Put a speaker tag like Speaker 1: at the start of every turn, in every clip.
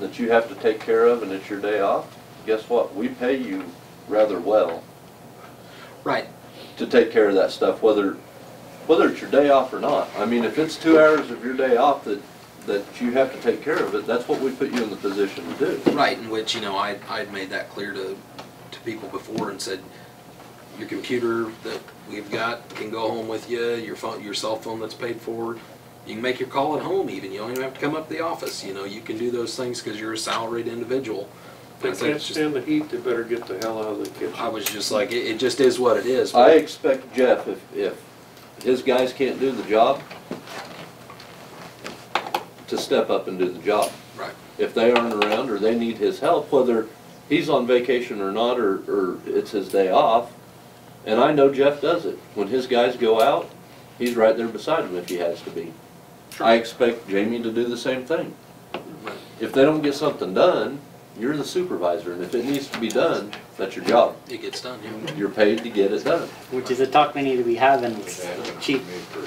Speaker 1: that you have to take care of and it's your day off, guess what? We pay you rather well
Speaker 2: Right,
Speaker 1: to take care of that stuff, whether, whether it's your day off or not. I mean, if it's two hours of your day off that, that you have to take care of it, that's what we put you in the position to do.
Speaker 2: right, in which, you know, I, I'd made that clear to, to people before and said, your computer that we've got can go home with you, your phone, your cell phone that's paid for, you can make your call at home even, you don't even have to come up to the office, you know, you can do those things because you're a salaried individual.
Speaker 3: They
Speaker 2: I think
Speaker 3: can't
Speaker 2: it's just-
Speaker 3: stand the heat, they better get the hell out of the
Speaker 2: I
Speaker 3: kitchen.
Speaker 2: was just like, it, it just is what it is.
Speaker 1: I
Speaker 2: but-
Speaker 1: expect Jeff, if, if his guys can't do the job, to step up and do the job.
Speaker 2: Right,
Speaker 1: if they aren't around or they need his help, whether he's on vacation or not, or, or it's his day off. And I know Jeff does it. When his guys go out, he's right there beside him if he has to be. I expect Jamie to do the same thing.
Speaker 2: right.
Speaker 1: If they don't get something done, you're the supervisor, and if it needs to be done, that's your job.
Speaker 2: it gets done, yeah.
Speaker 1: You're paid to get it done.
Speaker 4: Which is a talk we need to be having, it's cheap,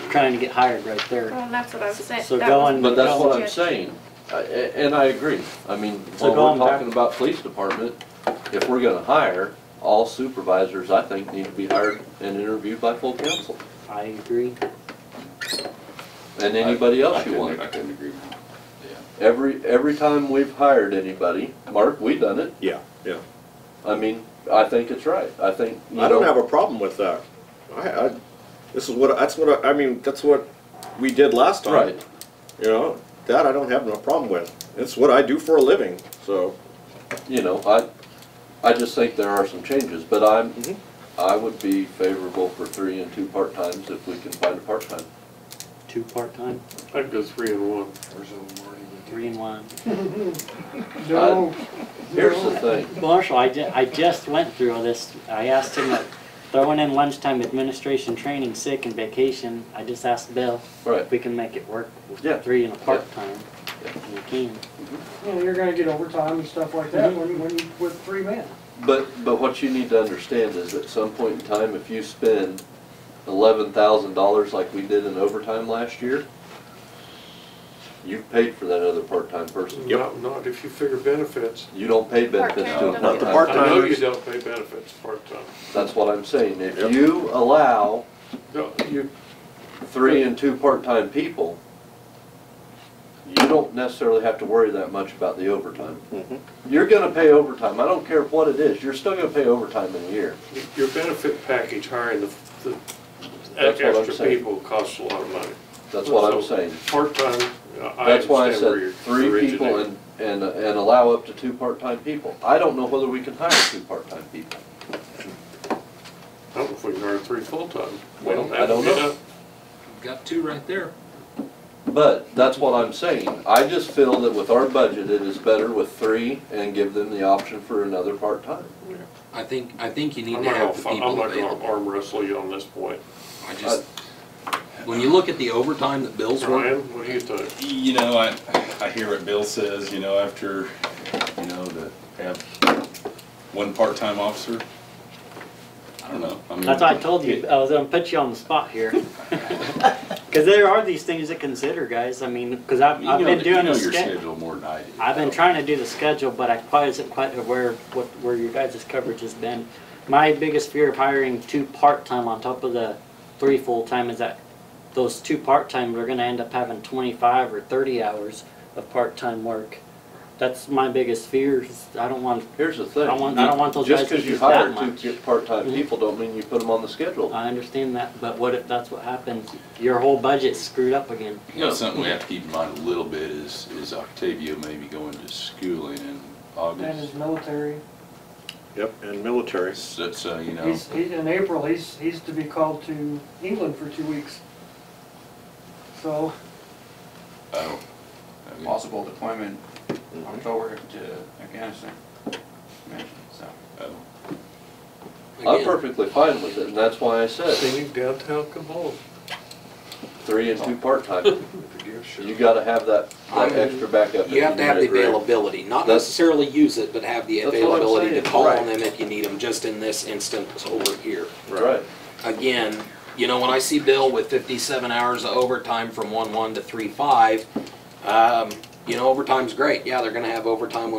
Speaker 4: trying to get hired right there.
Speaker 5: Well, and that's what I was saying.
Speaker 4: So
Speaker 5: That was-
Speaker 4: going-
Speaker 1: But that's what I'm
Speaker 5: Yes.
Speaker 1: saying, I- a- and I agree. I mean,
Speaker 4: So
Speaker 1: when we're
Speaker 4: going back-
Speaker 1: talking about police department, if we're gonna hire, all supervisors, I think, need to be hired and interviewed by full council,
Speaker 4: I agree.
Speaker 1: and anybody else you want.
Speaker 6: I couldn't agree more.
Speaker 1: Every, every time we've hired anybody, Mark, we done it,
Speaker 7: Yeah, yeah.
Speaker 1: I mean, I think it's right, I think, you
Speaker 7: I don't
Speaker 1: know,
Speaker 7: have a problem with that. I, I, this is what, that's what, I I mean, that's what we did last time.
Speaker 1: Right,
Speaker 7: You know, that I don't have no problem with. It's what I do for a living, so.
Speaker 1: you know, I, I just think there are some changes, but I'm,
Speaker 7: Mhm.
Speaker 1: I would be favorable for three and two part-times if we can find a part-time.
Speaker 4: Two part-time,
Speaker 3: I'd go three and one.
Speaker 4: three and one.
Speaker 1: No. Here's the thing,
Speaker 4: Marshall, I ju- I just went through all this. I asked him, uh, throwing in lunchtime administration training, sick and vacation. I just asked Bill
Speaker 1: right,
Speaker 4: if we can make it work
Speaker 1: Yeah.
Speaker 4: with three and a part-time.
Speaker 1: Yeah.
Speaker 4: And we can.
Speaker 6: Mm-hmm.
Speaker 8: you know, you're gonna get overtime and stuff like that when, when, you- with three men.
Speaker 1: But, but what you need to understand is at some point in time, if you spend eleven thousand dollars like we did in overtime last year, you've paid for that other part-time person.
Speaker 3: Not, not if you figure benefits.
Speaker 1: You don't pay benefits to a
Speaker 5: Part-time, don't
Speaker 1: part-time.
Speaker 5: you?
Speaker 3: I know
Speaker 7: Part-timers.
Speaker 3: you don't pay benefits part-time.
Speaker 1: That's what I'm saying. If
Speaker 7: Yep.
Speaker 1: you allow
Speaker 3: No, you,
Speaker 1: three and two part-time people, you don't necessarily have to worry that much about the overtime. You're gonna pay overtime. I don't care what it is. You're still gonna pay overtime in a year.
Speaker 3: your benefit package hiring the, the
Speaker 1: That's what I'm
Speaker 3: extra
Speaker 1: saying.
Speaker 3: people costs a lot of money.
Speaker 1: That's what I'm
Speaker 3: So,
Speaker 1: saying.
Speaker 3: Part-time, uh, I
Speaker 1: That's why I
Speaker 3: understand where
Speaker 1: said
Speaker 3: you're
Speaker 1: three people
Speaker 3: originating.
Speaker 1: and, and, and allow up to two part-time people. I don't know whether we can hire two part-time people.
Speaker 3: I don't know if we can hire three full-time. We
Speaker 1: Well,
Speaker 3: don't
Speaker 1: I
Speaker 3: have
Speaker 1: don't know.
Speaker 3: enough.
Speaker 2: Got two right there.
Speaker 1: But that's what I'm saying. I just feel that with our budget, it is better with three and give them the option for another part-time.
Speaker 2: I think, I think you need
Speaker 3: I'm
Speaker 2: to
Speaker 3: not
Speaker 2: have
Speaker 3: gonna,
Speaker 2: the
Speaker 3: fi- I'm
Speaker 2: people
Speaker 3: not gonna
Speaker 2: available.
Speaker 3: arm wrestle you on this point.
Speaker 2: I just, when you look at the overtime that Bill's running,
Speaker 3: Ryan, what do you think?
Speaker 6: You know, I, I hear what Bill says, you know, after, you know, that have one part-time officer. I don't know. I mean,
Speaker 4: That's why I told you, I was gonna put you on the spot here. Cause there are these things to consider, guys. I mean, cause I've,
Speaker 6: You
Speaker 4: I've
Speaker 6: know
Speaker 4: been
Speaker 6: that-
Speaker 4: doing the
Speaker 6: You know your
Speaker 4: schedule.
Speaker 6: schedule more than I do.
Speaker 4: I've been trying to do the schedule, but I quite isn't quite aware of what, where your guys' coverage has been. My biggest fear of hiring two part-time on top of the three full-time is that those two part-time, are gonna end up having twenty-five or thirty hours of part-time work. That's my biggest fear, is I don't want,
Speaker 1: Here's the thing.
Speaker 4: I want- I don't want those guys to use
Speaker 1: Just
Speaker 4: that
Speaker 1: because
Speaker 4: much. Uh,
Speaker 1: you hire two part-time
Speaker 4: Mhm.
Speaker 1: people don't mean you put them on the schedule.
Speaker 4: I understand that, but what if that's what happens? Your whole budget's screwed up again.
Speaker 6: You know, something we have to keep in mind a little bit is, is Octavio may be going to schooling in
Speaker 8: And his
Speaker 6: August.
Speaker 8: military,
Speaker 7: Yep, and military.
Speaker 6: So, so, you know,
Speaker 8: he's, he, in April, he's, he's to be called to England for two weeks. So,
Speaker 6: oh, I mean,
Speaker 9: possible deployment October to Afghanistan. Yeah, So.
Speaker 6: oh.
Speaker 1: I'm
Speaker 2: again,
Speaker 1: perfectly fine with it, and that's why I said,
Speaker 3: Sending downtown come home.
Speaker 1: three and two part-time. You gotta have that, that
Speaker 2: I'm-
Speaker 1: extra backup.
Speaker 2: you
Speaker 1: if
Speaker 2: have to have the
Speaker 1: need it, right?
Speaker 2: availability, not
Speaker 1: That's-
Speaker 2: necessarily use it, but have the
Speaker 1: That's what I'm
Speaker 2: availability to
Speaker 1: saying,
Speaker 2: call on
Speaker 1: right.
Speaker 2: them if you need them, just in this instance over here.
Speaker 1: Right.
Speaker 2: again, you know, when I see Bill with fifty-seven hours of overtime from one-one to three-five, um, You know, overtime's great, yeah, they're gonna have overtime when they